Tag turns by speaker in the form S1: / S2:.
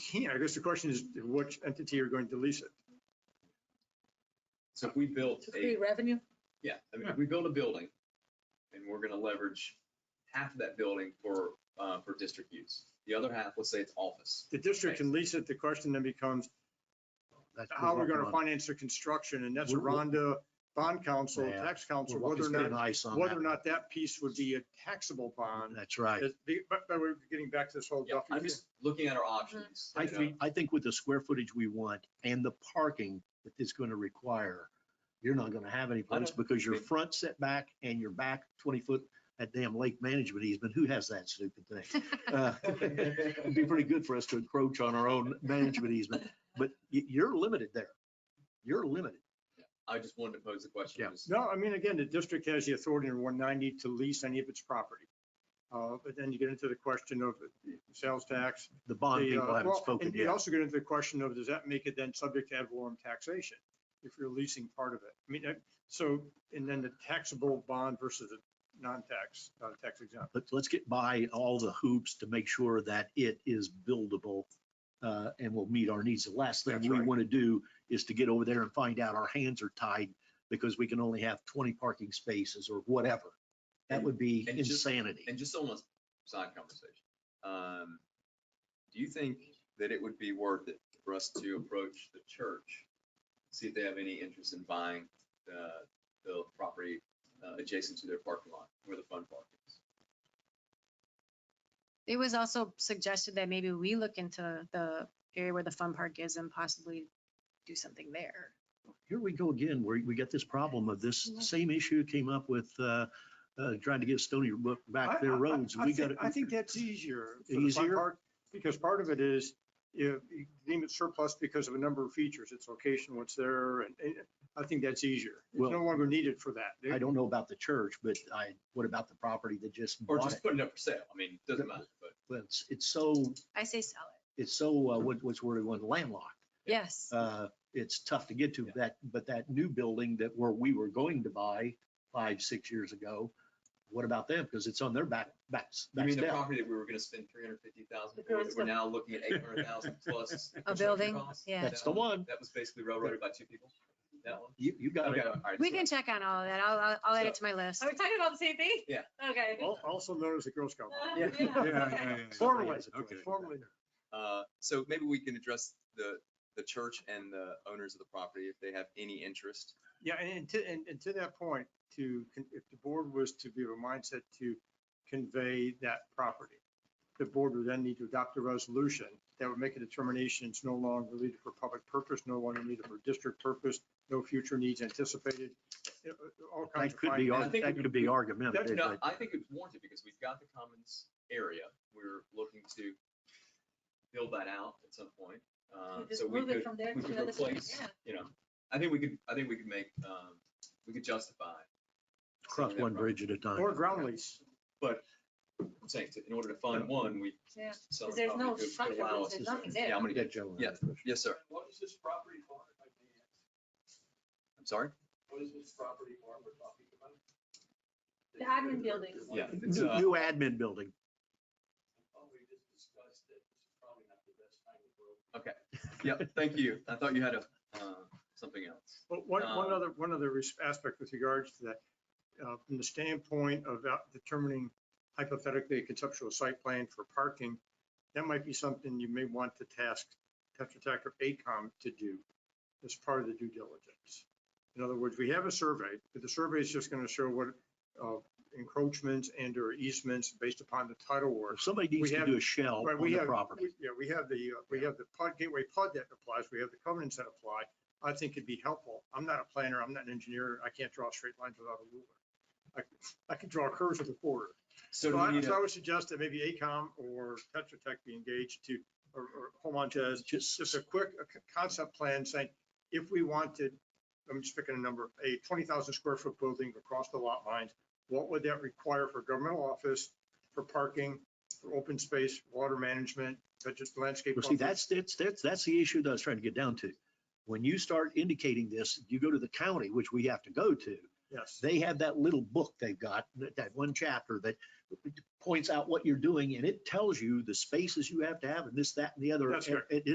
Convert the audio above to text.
S1: can't. I guess the question is which entity are going to lease it?
S2: So if we built
S3: to
S2: a,
S3: create revenue?
S2: yeah, I mean,
S1: Yeah.
S2: if we build a building and we're gonna leverage half of that building for, uh, for district use. The other half, let's say it's office.
S1: The district can lease it. The question then becomes
S4: That's
S1: how
S4: we're
S1: we're going to
S4: working on.
S1: finance the construction and that's a
S4: We're- we're-
S1: Rhonda bond council,
S4: Yeah.
S1: tax
S4: We're
S1: council,
S4: working
S1: whether or
S4: through
S1: not,
S4: an ice on
S1: whether or
S4: that.
S1: not that piece would be a taxable bond.
S4: That's right.
S1: Is- be- But, but we're getting back to this whole
S2: Yeah,
S1: Duffy
S2: I'm
S1: thing.
S2: just looking at our options.
S4: I
S2: you know.
S4: think, I think with the square footage we want and the parking that it's going to require, you're not going to have any place
S2: know.
S4: because your
S2: Maybe.
S4: front setback and your back twenty foot, that damn lake management easement, who has that stupid thing? Uh, It'd be pretty good for us to encroach on our own management easement, but y- you're limited there. You're limited.
S2: I just wanted to pose the question.
S4: Yeah.
S2: was-
S1: No, I mean, again, the district has the authority in one ninety to lease any of its property. Uh, but then you get into the question of the sales tax.
S4: The bond
S1: the, uh,
S4: people haven't
S1: well,
S4: spoken
S1: And you
S4: yet.
S1: also get into the question of, does that make it then subject to ad valorem taxation if you're leasing part of it? I mean, uh, so, and then the taxable bond versus the non-tax, uh, tax exempt.
S4: But let's get by all the hoops to make sure that it is buildable uh, and will meet our needs. The last thing
S1: That's
S4: we
S1: right.
S4: want to do is to get over there and find out our hands are tied because we can only have 20 parking spaces or whatever. That would be
S2: And just-
S4: insanity.
S2: And just almost side conversation. Um, do you think that it would be worth it for us to approach the church? See if they have any interest in buying the, the property uh, adjacent to their parking lot where the fun park is?
S5: It was also suggested that maybe we look into the area where the fun park is and possibly do something there.
S4: Here we go again, where we got this problem of this
S5: Yeah.
S4: same issue came up with uh, uh, trying to give Stony Brook
S1: I-
S4: back their
S1: I- I-
S4: roads.
S1: I
S4: We got
S1: think-
S4: to.
S1: I think that's easier. for the fun
S4: Easier?
S1: part, Because part of it is, if you deem it surplus because of a number of features, its location, what's there, and, and I think that's easier. It's
S4: Well-
S1: no longer needed for that.
S4: I don't know about the church, but I, what about the property that just
S2: Or
S4: bought it?
S2: just putting it up for sale. I mean, it doesn't matter, but
S4: But It's, it's so,
S5: I say sell it.
S4: it's so, uh, what, what's the word we want, landlocked.
S5: Yes.
S4: uh, it's tough to get to
S2: Yeah.
S4: that, but that new building that where we were going to buy five, six years ago, what about them? Because it's on their back, back,
S2: I
S4: back
S2: mean, the
S4: step.
S2: property that we were gonna spend three hundred fifty thousand
S3: The
S2: for, that
S3: girls
S2: we're
S3: go-
S2: now looking at eight hundred thousand plus.
S5: A
S2: construction
S5: building,
S2: costs.
S5: yeah.
S4: That's
S2: That
S4: the one.
S2: That was basically railroaded by two people. That one.
S4: You, you got
S2: Okay,
S4: it.
S2: all right.
S5: We
S2: so-
S5: can check on all of that. I'll, I'll- I'll add it to my list.
S3: Are we talking about the same thing?
S2: Yeah.
S3: Okay.
S1: Al- Also known as the Girl Scout.
S3: Uh,
S4: Yeah.
S6: Yeah,
S3: yeah, okay.
S6: yeah, yeah.
S1: Formally,
S6: Okay.
S1: formally.
S2: Uh, So maybe we can address the, the church and the owners of the property if they have any interest.
S1: Yeah, and- and to, and, and to that point, to, con- if the board was to be of a mindset to convey that property, the board would then need to adopt a resolution that would make a determination it's no longer needed for public purpose, no longer needed for district purpose, no future needs anticipated, you know, all kinds
S4: That
S1: of.
S4: could be,
S1: findings.
S2: I
S4: ar-
S2: think
S4: that
S2: we-
S4: could be argumentative,
S2: No,
S4: but
S2: I think it's warranted because we've got the commons area. We're looking to build that out at some point. Uh,
S3: We
S2: So
S3: Just
S2: we
S3: move it
S2: could,
S3: from there
S2: we
S3: to
S2: could
S3: another.
S2: replace,
S3: Yeah.
S2: you know, I think we could, I think we could make, um, we could justify.
S4: cross
S2: selling that
S4: one
S2: property.
S4: bridge at a time.
S1: Or ground lease.
S2: I'm saying, to- in order to fund one, we.
S3: Yeah.
S2: sell
S3: Because
S2: the
S3: there's no
S2: property to- to
S3: structure,
S2: allow us
S3: there's
S2: to-
S3: nothing
S2: Yeah,
S3: there.
S2: I'm gonna,
S4: Yeah, Joe.
S2: yeah. yes, sir.
S7: What is this property for, if I may ask?
S2: I'm sorry.
S7: What is this property for we're talking about?
S3: The admin building.
S2: Yeah. It's,
S4: New
S2: uh,
S4: new admin building.
S7: Oh, we just discussed it. This is probably not the best time in the
S2: Okay.
S7: world.
S2: Yep, thank you. I thought you had a, uh, something else.
S1: But one, one
S2: Um,
S1: other, one other res- aspect with regards to that, uh, from the standpoint of out- determining hypothetically a conceptual site plan for parking, that might be something you may want to task Tetra Tech or ACOM to do as part of the due diligence. In other words, we have a survey, but the survey is just going to show what uh, encroachments and or easements based upon the title work.
S4: Somebody
S1: We
S4: needs to
S1: have-
S4: do a shell
S1: Right,
S4: on
S1: we
S4: the
S1: have-
S4: property.
S1: we- Yeah, we have the, uh, we have the PUD gateway PUD that applies, we have the covenants that apply. I think it'd be helpful. I'm not a planner, I'm not an engineer, I can't draw straight lines without a ruler. I, I can draw curves with a quarter.
S2: So
S1: So
S2: do we
S1: I,
S2: need
S1: so
S2: a,
S1: I would suggest that maybe ACOM or Tetra Tech be engaged to, or, or Home Jazz,
S4: Just
S1: just a quick a c- concept plan saying, if we wanted, I'm just picking a number, a 20,000 square foot building across the lot lines, what would that require for governmental office, for parking, for open space, water management, such as landscape?
S4: Well, see,
S1: buffer?
S4: that's, that's, that's, that's the issue that I was trying to get down to. When you start indicating this, you go to the county, which we have to go to.
S1: Yes.
S4: They have that little book they've got, that, that one chapter that points out what you're doing and it tells you the spaces you have to have and this, that, and the other.
S1: That's
S4: and
S1: correct.
S4: It,